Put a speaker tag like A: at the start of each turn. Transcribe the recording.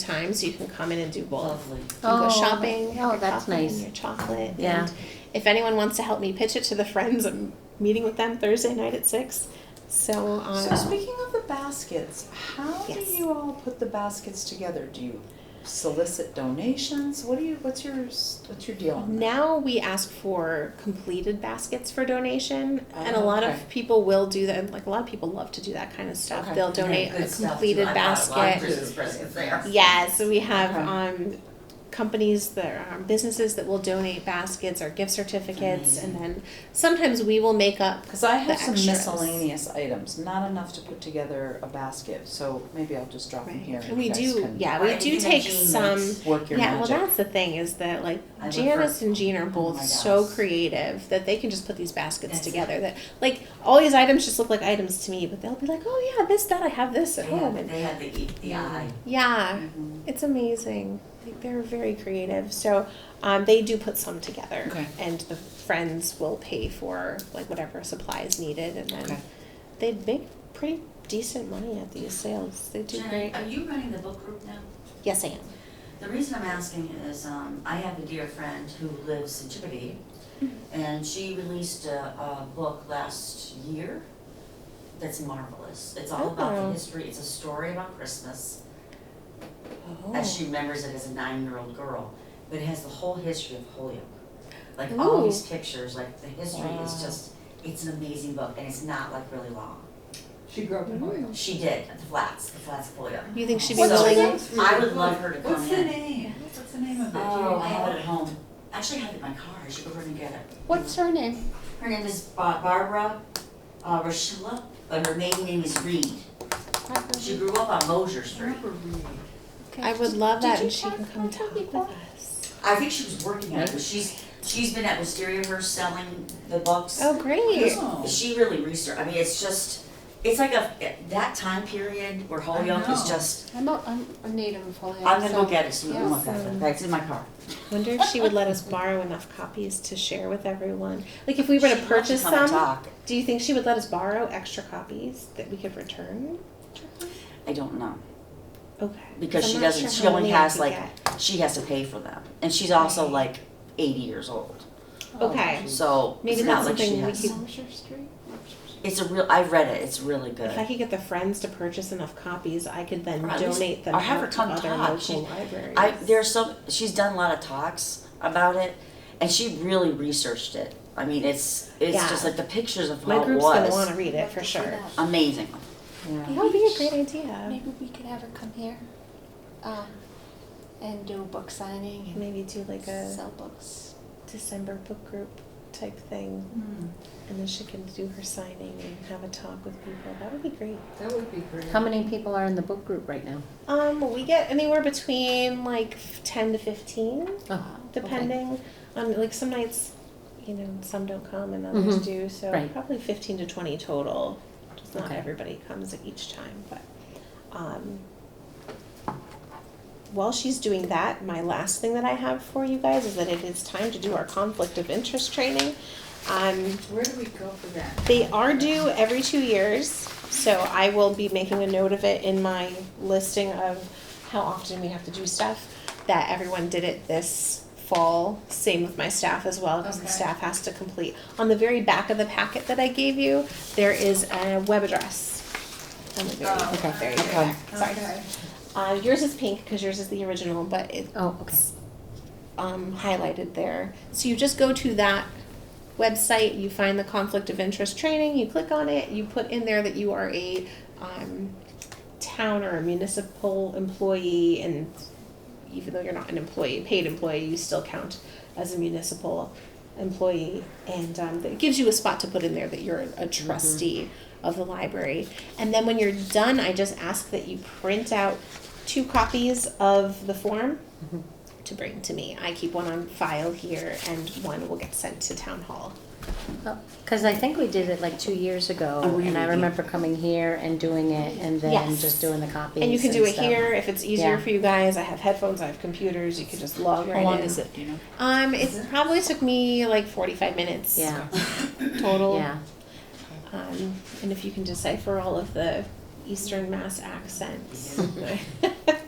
A: time, so you can come in and do both.
B: Lovely.
A: You can
C: Oh,
A: go shopping. have
C: oh,
A: your
C: that's
A: coffee and
C: nice.
A: Your chocolate.
C: Yeah.
A: And if anyone wants to help me pitch it to the friends, I'm meeting with them Thursday night at six. So, um,
B: So speaking of the baskets, how do
A: Yes.
B: you all put the baskets together? Do you solicit donations? What do you, what's your, s- what's your deal on that?
A: Now we ask for completed baskets for donation, and a
B: Oh,
A: lot
B: okay.
A: of people will do that. Like a lot of people love to do that kind of stuff.
B: Okay.
A: They'll
D: Yeah,
A: donate
D: good
A: a
D: stuff, too.
A: completed
D: I bought a lot of
A: basket.
D: Christmas presents there.
A: Yeah, so we have
B: Okay.
A: um, companies that are um, businesses that will donate baskets or gift certificates, and then sometimes we will make up.
B: Cause I have
A: The
B: some
A: extras.
B: miscellaneous items, not enough to put together a basket, so maybe I'll just drop them here
A: Right.
B: and
A: And we
B: you guys
A: do,
B: can
A: yeah,
D: Or
A: we
D: anything
A: do
D: that
A: take
D: Jean
A: some.
D: makes.
B: work your
A: Yeah, well,
B: magic.
A: that's the thing is that like
D: I look
A: Janice and Jean are
B: Oh
A: both
B: my
A: so
B: gosh.
A: creative that they can just put these baskets
D: That's it.
A: together. That like all these items just look like items to me, but they'll be like, oh yeah, this that I have this
D: They
A: at home,
D: had,
A: and Mm,
D: they had the, E the eye.
A: yeah,
B: Mhm.
A: it's amazing. Like they're very creative, so um, they do put some together,
B: Okay.
A: and the friends will pay for like whatever supplies needed, and then
B: Okay.
A: they make pretty decent money at these sales. They do
D: Jen,
A: great.
D: are you running the book group now?
A: Yes, I am.
D: The reason I'm asking is, um, I have a dear friend who lives in Chippewa,
A: Mm-hmm.
D: and she released a, a book last year that's marvelous. It's all about
A: Oh.
D: the history, it's a story about Christmas,
A: Oh.
D: as she remembers it as a nine-year-old girl, but it has the whole history of Holyoke. Like all
A: Ooh.
D: these pictures, like the history is
B: Wow.
D: just, it's an amazing book, and it's not like really long.
E: She grew up in Hoyle.
D: She did, at the flats, the flats of Holyoke.
A: You think she'd be
D: What's her
A: willing?
D: name? I would love her to come
E: What's the
D: in.
E: name? What's the name of it? Do you
D: Oh, I have
E: know?
D: it at home. Actually, I have it in my car. I should go over and get it.
C: What's her name?
D: Her name is Ba- Barbara uh, Rochella, but her maiden name is Reed. She grew up on Mosier Street.
A: I would love
C: Did
A: that,
C: you
A: and she
C: talk
A: can come
C: about her
A: talk with
C: before?
A: us.
D: I think she was working on it, but she's, she's been at Wisteria, her selling the books.
A: Oh, great!
E: Oh.
D: She really researched, I mean, it's just, it's like a, that time period where Holyoke is
E: know.
D: just,
C: I'm a, I'm a native of Holyoke.
D: I'm gonna
C: so-
D: go get it, so we can look at it.
A: Awesome.
D: It's in my car.
A: Wonder if she would let us borrow enough copies to share with everyone. Like if we were to
D: She'd love
A: purchase
D: come and
A: some,
D: talk.
A: do you think she would let us borrow extra copies that we could return?
D: I don't know.
A: Okay.
D: Because
A: I'm
D: she
A: not
D: doesn't-
A: sure
D: she
A: how
D: only
A: many I
D: has,
A: could
D: like,
A: get.
D: She has to pay for them, and she's also
A: Right.
D: like eighty years old. oh,
A: Okay.
D: So
A: Maybe
D: it's not
A: that's
D: like she
A: something we
D: has.
A: could-
C: Somerset Oh, Street?
D: It's a real. I read it. It's really good.
A: If I could get the friends to purchase enough copies, I could then
D: Or at least-
A: donate them
D: or have her
A: out to
D: come
A: other
D: talk.
A: local
D: She-
A: libraries.
D: I there's some. She's done a lot of talks about it, and she really researched it. I mean, it's it's
A: Yeah.
D: just like the pictures of
A: My
D: how it
A: group's gonna
D: was
A: wanna read it for sure.
D: amazing.
B: Yeah.
A: That would be a great idea.
C: Maybe we could have her come here, um, and do a book signing
A: Maybe do like
C: and
A: a
C: sell books.
A: December book group type thing. And then she can do her signing and have a talk with people. That would be great.
E: That would be great.
C: How many people are in the book group right now?
A: Um, we get anywhere between like f- ten to fifteen,
C: Oh, okay.
A: depending on like some nights, you know, some don't come and others
C: Mhm.
A: do. So
C: Right.
A: probably fifteen to twenty total. Just not
C: Okay.
A: everybody comes at each time, but um, while she's doing that, my last thing that I have for you guys is that it is time to do our conflict of interest training. Um,
E: Where do we go for that?
A: they are due every two years, so I will be making a note of it in my listing of how often we have to do stuff. That everyone did it this fall. Same with my staff as well, because the
E: Okay.
A: staff has to complete. On the very back of the packet that I gave you, there is a web address. On the very,
E: Oh,
A: okay, very, very
C: okay.
A: back. Sorry.
E: Okay.
A: Uh, yours is pink because yours is the original, but it
C: Oh, okay.
A: um, highlighted there. So you just go to that website, you find the conflict of interest training, you click on it, you put in there that you are a um, town or a municipal employee, and even though you're not an employee, a paid employee, you still count as a municipal employee. And um, it gives you a spot to put in there that you're a trustee of the library. And then when you're done, I just ask that you print out two copies of the form to bring to me. I keep one on file here and one will get sent to town hall.
C: Because Oh, I think we did it like two years ago,
D: Oh, we
C: and I
D: did.
C: remember coming here and doing it, and then
A: Yes.
C: just doing the copies.
A: and you can do it
C: stuff.
A: here if it's easier
C: Yeah.
A: for you guys. I have headphones, I have computers, you can just log right in.
E: it, do you know?
A: Um it probably took me like 45 minutes
C: Yeah,
A: total.
C: yeah.
A: Um, and if you can decipher all of the Eastern Mass accents.